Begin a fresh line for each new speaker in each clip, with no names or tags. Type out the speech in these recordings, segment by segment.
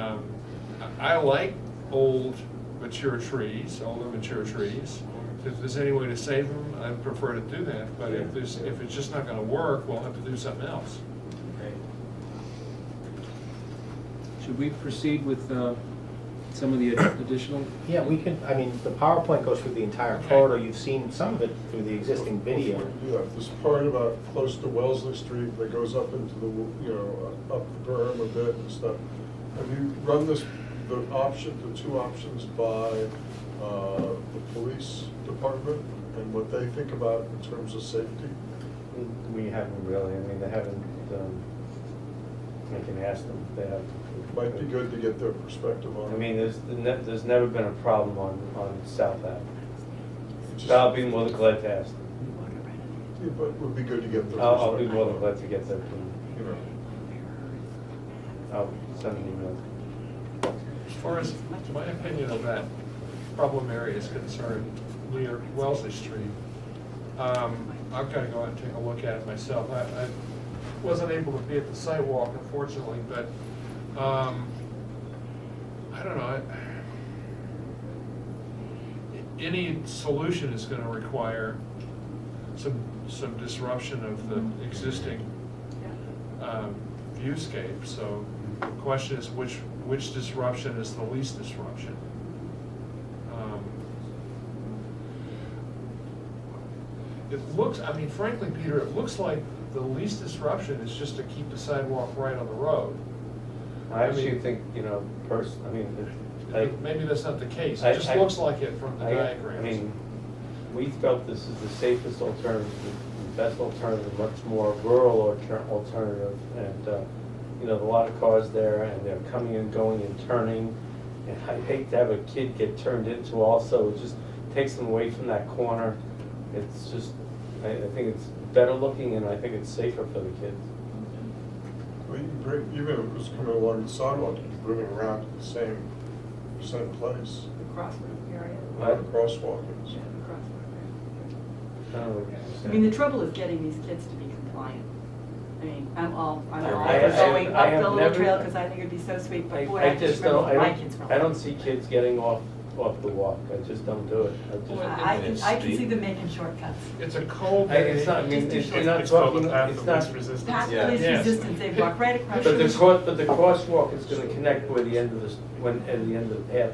Um, I like old mature trees, older mature trees. If there's any way to save them, I'd prefer to do that, but if there's, if it's just not gonna work, we'll have to do something else.
Should we proceed with uh, some of the ad- additional?
Yeah, we can, I mean, the PowerPoint goes through the entire corridor, you've seen some of it through the existing video.
Yeah, this part about close to Wellesley Street that goes up into the, you know, uh, up the berm a bit and stuff. Have you run this, the option, the two options by uh, the police department and what they think about in terms of safety?
We haven't really, I mean, they haven't, um, I can ask them if they have.
Might be good to get their perspective on
I
it.
mean, there's, ne- there's never been a problem on, on South Ave.
It's just-
I'll be more than glad to ask them.
Yeah, But it would be good to get their perspective.
I'll, I'll be more than glad to get that, from-
You know.
I'll send an email.
As far as my opinion of that problem area is concerned, near Wellesley Street, um, I've got to go out and take a look at it myself. I, I wasn't able to be at the site walk unfortunately, but, um, I don't know. I- Any solution is going to require some, some disruption of the existing um, viewscape, so the question is which, which disruption is the least disruption? Um, It looks, I mean frankly, Peter, it looks like the least disruption is just to keep the sidewalk right on the road.
I
I
actually
mean-
think, you know, person, I mean, it- like.
Maybe that's not the case,
I-
it just
I-
looks like it from the
I-
diagrams.
I mean, we felt this is the safest alternative, the best alternative, much more rural alter- alternative. And, uh, you know, a lot of cars there and they're coming and going and turning. And I hate to have a kid get turned into also, it just takes them away from that corner. It's just, I, I think it's better looking and I think it's safer for the kids.
Well, you can bring, even if it was coming along the sidewalk, you can bring it around to the same, same place,
The crossroad area.
where the
Right.
crosswalk is.
Yeah, the crossroad
I don't know what you're
area. I
saying.
mean, the trouble is getting these kids to be compliant. I mean, I'm all, I'm all
I have-
for going
I have
up the little
never-
trail because I think it'd be so sweet,
I-
but boy,
I
I just
just don't-
remember
I
my
don't-
kids from.
I don't see kids getting off, off the walk, I just don't do it. I just-
I I can, I can see them making shortcuts.
It's a cold
I-
day.
It's not, I mean, it's you're not
It's called
talking,
the path
it's
of least
not,
resistance.
That's police
Yes.
resistance, they walk right across.
but the
the-
cross, but the crosswalk is gonna connect where the end of this, when, at the end of the path.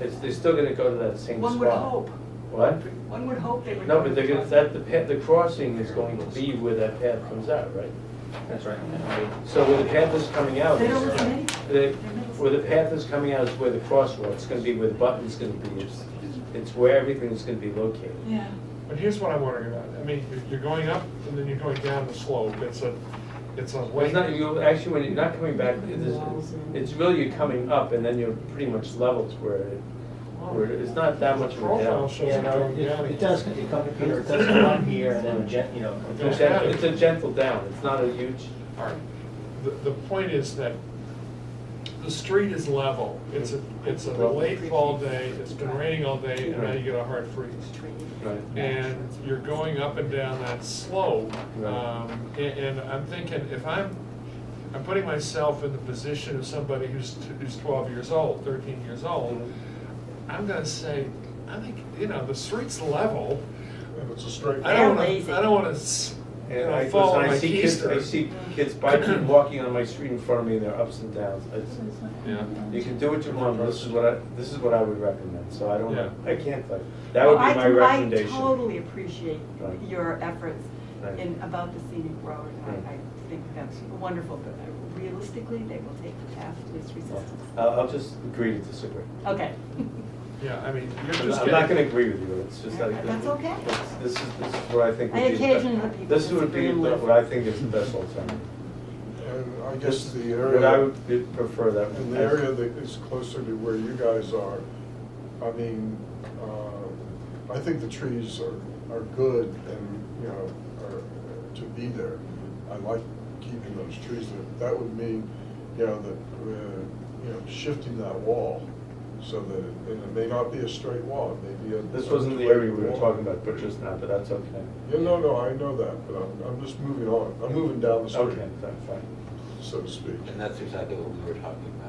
It's, they're still gonna go to that same spot.
One would hope,
What?
one would hope they would.
No,
go
but
to
they're
the
gonna, that,
crossroad.
the path, the crossing is going to be where that path comes out, right?
That's right.
So where the path is coming out.
They
is-
don't listen anyway.
the- Where the path is coming out is where the crosswalk is gonna be, where the button's gonna be. It's- It's where everything is gonna be located.
Yeah.
But here's what I'm wondering about, I mean, you're- you're going up and then you're going down the slope, it's a, it's a.
Well, it's not, you, actually, when you're not coming back, it is, it's really you're coming up and then you're pretty much level to where it, where it- it's not that much of a
Profile
down.
shows
Yeah,
it
no,
going
it,
down.
it does, it comes, Peter, it does come up here and then, gen- you know, it
It's
goes
a
down.
gentle, it's a gentle down, it's not a huge,
All right, the, the point is that the street is level, it's a, it's a late fall day, it's been raining all day, and now you get a hard freeze.
right?
And you're going up and down that slope, um, and, and I'm thinking, if I'm, I'm putting myself in the position of somebody who's, t- who's twelve years old, thirteen years old,
Mm-hmm.
I'm gonna say, I think, you know, the street's level,
And it's a straight.
I don't
They're
wanna,
lazy.
I don't wanna, s- you
And
know,
I,
fall
listen,
on
I
my
see kids, I
keister.
see kids biking, walking on my street in front of me, and they're ups and downs. It's,
Yeah.
you can do what you want, but this is what I, this is what I would recommend, so I don't,
Yeah.
I can't, like, that would
Well, I
be my
can-
recommendation.
I totally appreciate
Right.
your efforts
Right.
in, about the scenic road. I,
Right.
I think that's wonderful, but realistically, they will take the path of least resistance.
I'll, I'll just agree to disagree.
Okay.
Yeah, I mean, you're
I'm
just
not- I'm
getting.
not gonna agree with you, it's just that.
That's okay.
it's- This is, this is what I think
I
would be. the-
occasionally let people
This would
disagree
be
and
the-
live.
what I think is the best alternative.
And I guess the
But I
area,
would be- prefer that.
in the area that is closer to where you guys are, I mean, uh, I think the trees are, are good and, you know, are uh, to be there. I like keeping those trees there. That would mean, you know, that, uh, you know, shifting that wall so that, it- and it may not be a straight wall, it may be a.
This wasn't the area we were talking about, but just now, but that's okay.
Yeah, no, no, I know that, but I'm, I'm just moving on. I'm moving down the street,
Okay, fine, fine.
so to speak.
And that's exactly what we were talking about.